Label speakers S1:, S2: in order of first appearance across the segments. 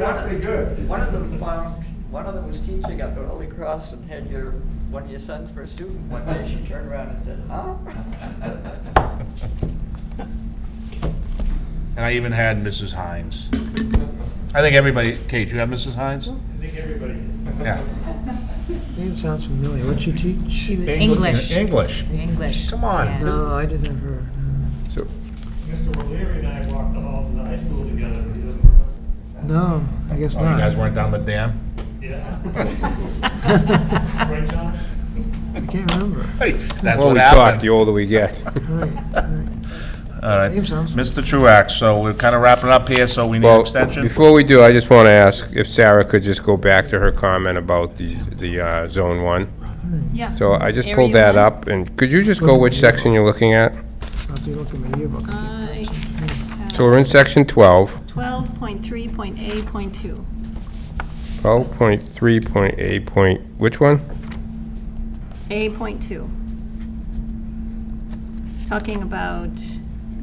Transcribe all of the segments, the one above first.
S1: Not pretty good.
S2: One of them found, one of them was teaching at the Holy Cross and had your, one of your sons for a student. One day she turned around and said, huh?
S3: And I even had Mrs. Hines. I think everybody, Kate, you have Mrs. Hines?
S4: I think everybody
S3: Yeah.
S5: Name sounds familiar. What'd you teach?
S6: She was
S7: English. English.
S6: English. English.
S3: Come on.
S6: yeah.
S5: No, I didn't have her.
S7: So,
S4: Mr. O'Leary and I walked the halls of the high school together, but he doesn't remember.
S5: No, I guess
S7: oh, you guys
S5: not.
S7: weren't down the dam?
S4: Yeah. Right, John?
S5: I can't remember.
S3: That's
S7: Well,
S3: what
S7: we talk,
S3: happened.
S7: the older we get.
S5: Right, right.
S3: All right.
S5: Name sounds-
S3: Mr. Truax, so we're kind of wrapping up here, so we need an
S7: Well,
S3: extension?
S7: before we do, I just want to ask if Sarah could just go back to her comment about the, the uh, Zone 1.
S8: Yeah.
S7: So I just pulled
S8: Area
S7: that
S8: one.
S7: up, and could you just go which section you're looking at?
S5: I'll have to look at my yearbook.
S8: I
S7: So we're in Section 12,
S8: twelve point three point A point two.
S7: 12.3.8 point, which one?
S8: A point two. Talking about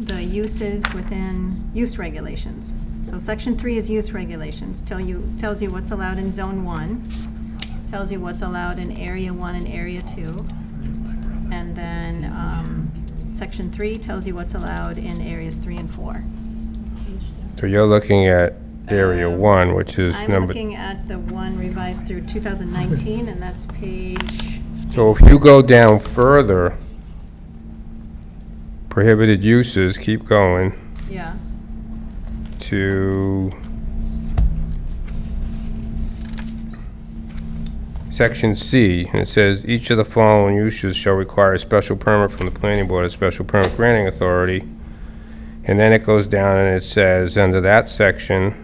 S8: the uses within use regulations. So section three is use regulations, tell you, tells you what's allowed in zone one, tells you what's allowed in area one and area two. And then, um, section three tells you what's allowed in areas three and four.
S7: So you're looking at Area
S8: Um,
S7: 1, which is
S8: I'm
S7: number
S8: looking at the one revised through 2019, and that's page,
S7: So if you go down further, prohibited uses, keep going,
S8: yeah,
S7: to section C, and it says, "Each of the following uses shall require a special permit from the planning board, a special permit granting authority." And then it goes down and it says, under that section,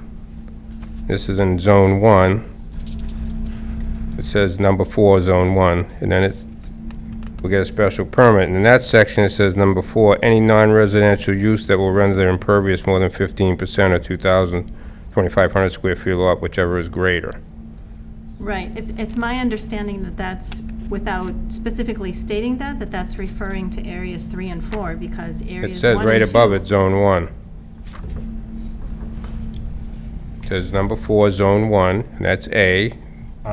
S7: this is in zone one, it says number four, zone one, and then it will get a special permit. And in that section, it says number four, any non-residential use that will render their impervious more than fifteen percent or 2,000, 2,500 square feet of lot, whichever is greater.
S8: right. It's, it's my understanding that that's, without specifically stating that, that that's referring to areas three and four, because
S7: It
S8: areas one
S7: says right above it, zone one. It Says number four, zone one, and that's A.
S3: All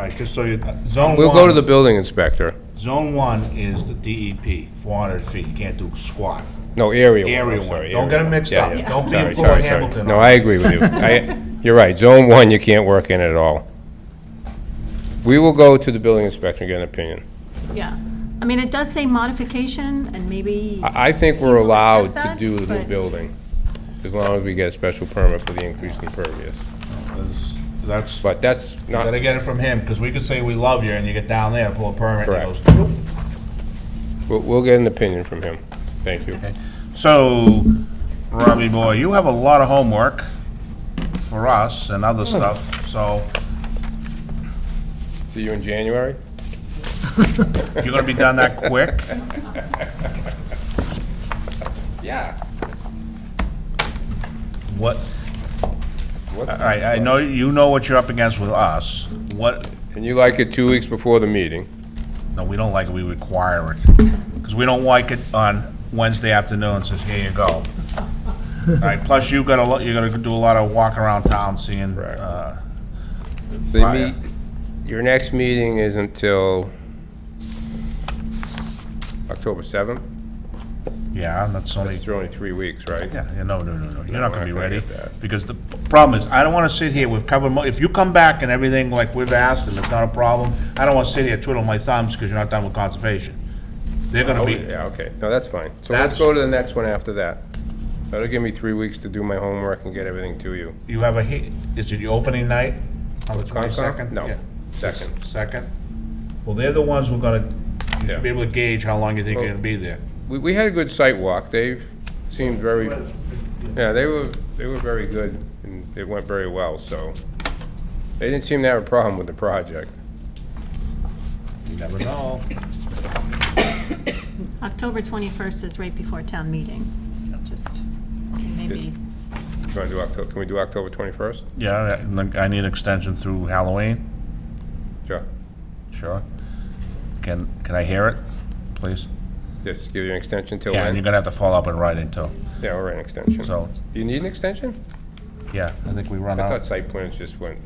S3: right, just so you, uh, zone one.
S7: We'll go to the building inspector.
S3: Zone one is the DEP, four hundred feet, you can't do squat.
S7: No, area one. I'm
S3: Area one,
S7: sorry,
S3: don't get
S7: area
S3: them mixed
S7: Yeah,
S3: up,
S7: yeah.
S3: don't be
S7: Sorry,
S3: a
S7: sorry,
S3: Paul
S7: sorry.
S3: Hamilton.
S7: No, I agree with you. I, you're right, zone one, you can't work in at all. We will go to the building inspector and get an opinion.
S8: Yeah. I mean, it does say modification, and maybe,
S7: I, I think
S8: He
S7: we're
S8: will
S7: allowed to
S8: accept
S7: do
S8: that,
S7: the new
S8: but-
S7: building, as long as we get a special permit for the increase in pervious.
S3: That's- That's,
S7: But that's not,
S3: gotta get it from him, because we could say we love you, and you get down there and pull a permit, and
S7: Correct.
S3: it goes, "Nope."
S7: we'll, we'll get an opinion from him. Thank you.
S3: So, Robbie boy, you have a lot of homework for us and other stuff, so
S7: See you in January?
S3: you're gonna be done that quick?
S7: Yeah.
S3: What, all right, I know, you know what you're up against with us. What,
S7: And you like it two weeks before the meeting?
S3: no, we don't like it, we require it. Because we don't like it on Wednesday afternoon, says, here you go. All right, plus you gotta, lo- you're gonna do a lot of walk around town seeing,
S7: Right.
S3: uh,
S7: They
S3: Right.
S7: meet, your next meeting is until October 7th?
S3: yeah, and that's only
S7: It's only three weeks, right?
S3: Yeah, yeah, no, no, no, no, you're not gonna be
S7: we're not
S3: ready,
S7: gonna get that.
S3: because the problem is, I don't wanna sit here, we've covered, mo- if you come back and everything like we've asked, and it's not a problem, I don't wanna sit here twiddling my thumbs, because you're not done with conservation. They're gonna
S7: Oh,
S3: be,
S7: yeah, okay, no, that's fine. So
S3: That's-
S7: let's go to the next one after that. That'll give me three weeks to do my homework and get everything to you.
S3: you have a, he- is it your opening night Oh, on the
S7: Concom?
S3: twenty-second?
S7: No, second.
S3: Second? Well, they're the ones who are gonna, you
S7: Yeah.
S3: should be able to gauge how long you think you're gonna be there.
S7: We, we had a good site walk, they seemed very, yeah, they were, they were very good, and it went very well, so. They didn't seem to have a problem with the project.
S3: You never know.
S8: October 21st is right before town meeting, just, maybe,
S7: You wanna do Octo, can we do October twenty-first?
S3: Yeah, and then I need extension through Halloween,
S7: Sure,
S3: sure. Can, can I hear it, please?
S7: just give you an extension till
S3: Yeah, and you're
S7: when?
S3: gonna have to follow up in writing too,
S7: Yeah, or an extension.
S3: so,
S7: Do you need an extension?
S3: Yeah, I think we run
S7: I
S3: out.
S7: thought site plans just went